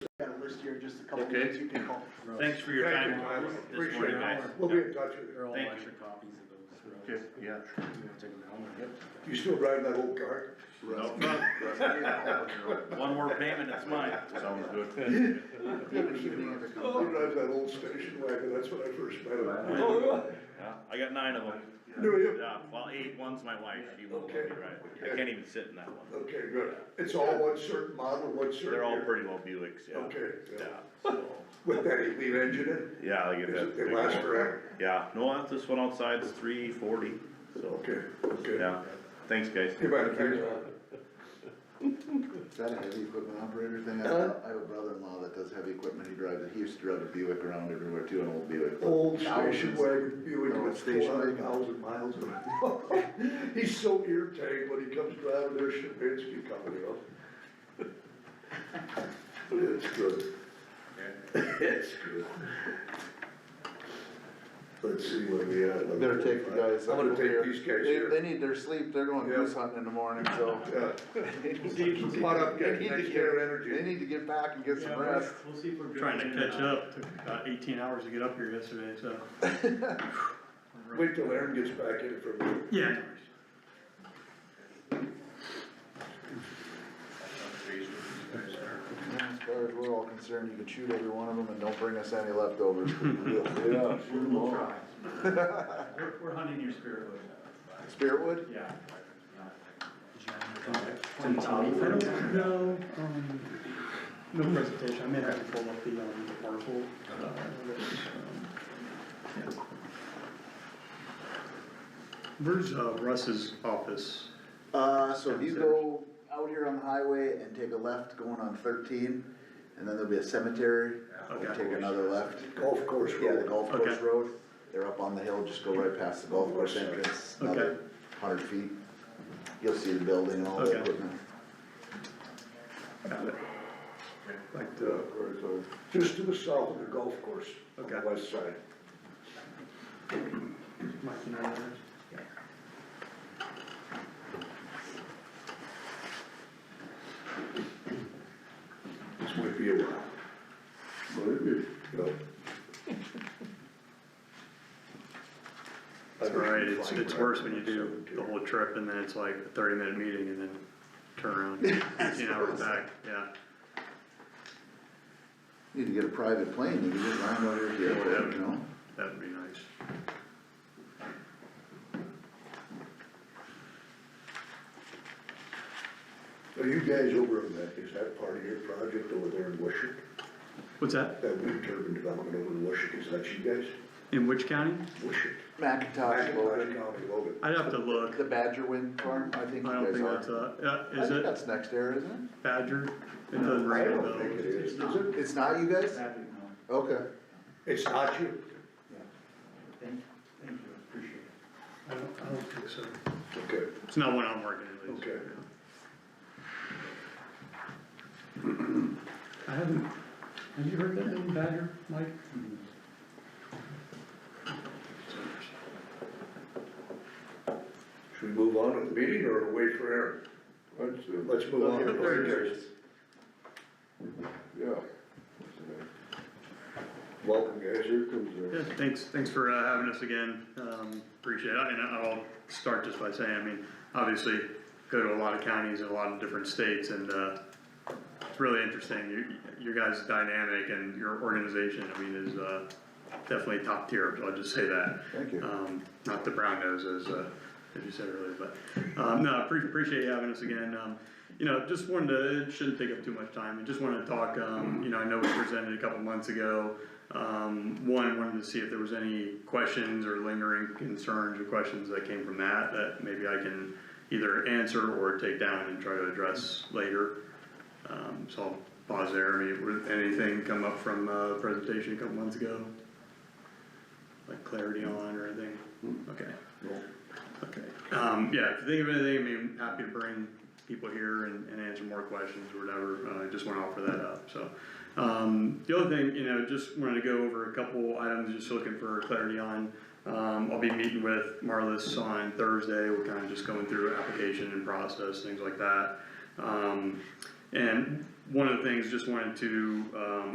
first year, just a couple Okay. names you can call. Thanks for your Thank time you, guys. this Appreciate morning, it. guys. We'll be in touch with you. They're all Thank you. extra copies of those. for us. Okay, yeah. You wanna take them down or? You still riding that old car? No problem. One more payment, it's mine. Sounds good. He drives that old station wagon, that's when I first met him. Oh, Yeah, I got nine of them. Do you? Yeah, well, eight, one's my wife, she won't let me ride. I can't even sit in that one. Okay, good. It's all one certain model, one certain. They're all year. pretty low Buicks, yeah. Okay, Yeah, yeah. so, With that eight lead engine yeah, I in, get is that. it, they big last one. forever? Yeah, no, that's this one outside is three forty, so, Okay, okay. yeah, thanks, guys. You might have paid Is that a heavy equipment operator thing? I Huh? I have a brother-in-law that does heavy equipment, he drives, it. he used to drive a Buick around everywhere too, an old Buick. Old station Thousands. wagon, Buick No, with station four hundred wagon. thousand miles on it. He's so irritated when he comes driving their Shabinsky coming up. It's good. It's good. Let's see what we had. Better take the guys. I'm gonna over here. take these guys They- They here. need their sleep, they're going Yeah. goose hunting in the morning, so. Yeah. Come on up, guys, They need to next get- year They energy. need to get back and get Yeah, some we'll- rest. We'll see if we're good. Trying to catch up, took about eighteen hours to get up here yesterday, so. Wait till Aaron gets back in for a minute. Yeah. As far as we're all concerned, you can shoot every one of them and don't bring us any leftovers. Yeah. We'll try. We're, we're hunting your spirit wood. Spiritwood? Yeah. Tim Tommy I for the- don't know, um, no presentation, I may have to pull up the, um, the parcel. Where's uh, Russ's office? Uh, so if you go out here on the highway and take a left going on thirteen, and then there'll be a cemetery, and Okay. take another left. Golf course Yeah, the road. golf course Okay. road, they're up on the hill, just go right past the golf course entrance, another Okay. hundred feet. You'll see the building and all the Okay. equipment. Got it. Like Yeah, the, right, so uh, Just to the south of the golf course, on the Okay. west side. Mike, you know where it is? This might be a while. Maybe. Yeah. It's alright, it's, it's worse when you do the whole trip and then it's like a thirty minute meeting and then turn around, fifteen hours back, yeah. Need to get a private plane, you can just land over here, you know? That'd be nice. Are you guys over in that, is that part of your project over there in Wishick? What's that? That wind turbine development over in Wishick, is that you guys? In which county? Wishick. Macintosh, Macintosh Logan, County, Logan. I'd have to look. the Badger Wind Farm, I think you I don't guys think are. that's, uh, yeah, I is think it that's next era, isn't Badger? It doesn't I ring a don't bell. think it is, is It's it? it? It's not you guys? Happy, no. Okay. It's not you. Thank, thank you, appreciate it. I don't, I don't think so. Okay, It's not one I'm working at least. okay. I haven't, have you heard that name Badger, Mike? Should we move on with the meeting or wait for Aaron? Let's, uh, let's move on. Yeah. Welcome, guys. Here comes Yeah, thanks, thanks for uh, having us again, um, appreciate it, and I'll start just by saying, I mean, obviously, go to a lot of counties in a lot of different states, and, uh, it's really interesting, your, your guys' dynamic and your organization, I mean, is, uh, definitely top tier, I'll just say that. Thank you. Um, not the brown nose, as, uh, as you said earlier, but, um, no, I pre- appreciate you having us again, um, you know, just wanted to, it shouldn't take up too much time, I just wanted to talk, um, you know, I know we presented a couple months ago, um, one, wanted to see if there was any questions or lingering concerns or questions that came from that, that maybe I can either answer or take down and try to address later. Um, so I'll pause there, I mean, were- anything come up from, uh, presentation a couple months ago? Like clarity on or anything? Okay. Okay, um, yeah, if you think of anything, I mean, happy to bring people here and, and answer more questions or whatever, uh, I just wanna offer that up, so. Um, the other thing, you know, just wanted to go over a couple items, just looking for clarity on. Um, I'll be meeting with Marlis on Thursday, we're kinda just going through application and process, things like that. Um, and one of the things, just wanted to, um,